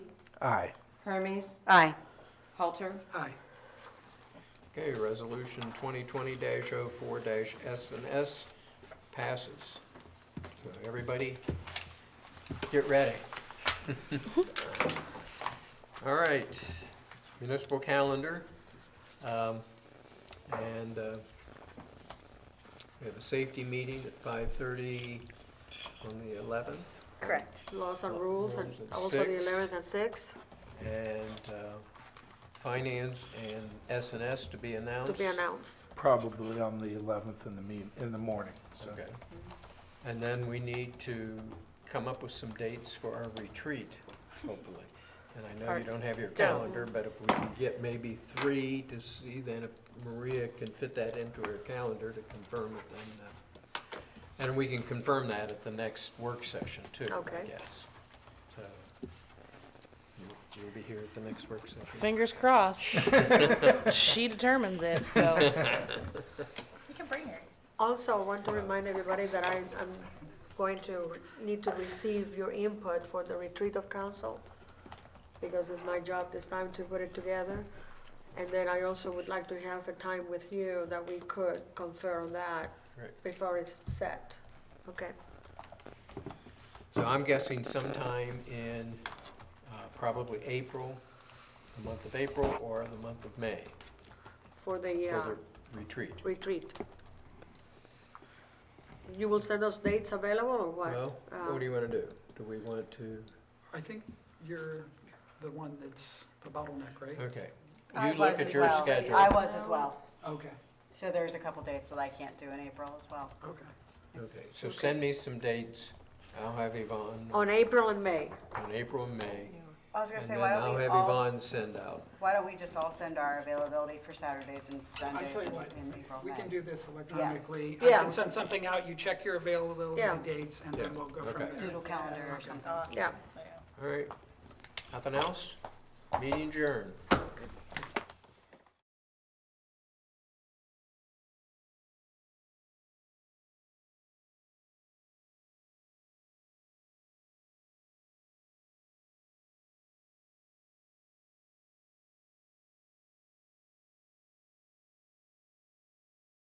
Aye. Hermes, Aye. Halter, Aye. Okay, resolution twenty twenty 4 S and S passes. So everybody, get ready. All right, municipal calendar. Um, and, uh, we have a safety meeting at five thirty on the eleventh. Correct. Laws and rules, and Rules at also the Uh, six. 11th at 6, And, uh, finance and S and S to be to announced. be announced. Probably on the 11th in the me, in the morning, so. Okay. And then we need to come up with some dates for our retreat, hopefully. And I know you don't have your calendar, but if we can get maybe three to see, then if Maria can fit that into her calendar to confirm it, then, uh, and we can confirm that at the next work session too, I Okay. guess. So, you- you'll be here at the next work session. Fingers crossed. she determines it, so. You can bring her. Also, I want to Uh-huh. remind everybody that I, I'm going to need to receive your input for the retreat of council, because it's my job this time to put it together. And then I also would like to have a time with you that we could confer on that Right. before it's set. Okay, So I'm guessing sometime in, uh, probably April, the month of April or the month of May. for the uh, for the retreat. retreat. You will send us dates available or what? Well, Uh, um, what do you want to do? Do we want to, I think you're the one that's the bottleneck, right? okay. I You look was at as your well. schedule. I was as well. Okay, So there's a couple dates that I can't do in April as well. okay. Okay, so send me some dates. I'll have Yvonne Uh, On April and May. on April and May. Oh. I was And gonna say, then why I'll don't we have all, Yvonne s- send out. why don't we just all send our availability for Saturdays and Sundays tell you in what, in April, We can May? do this electronically. I Yeah. can send something out, you check your availability Yeah. dates, and then Yeah. we'll go from Okay. there. Doodle calendar or something. Yeah. All right, nothing else? Meeting adjourned.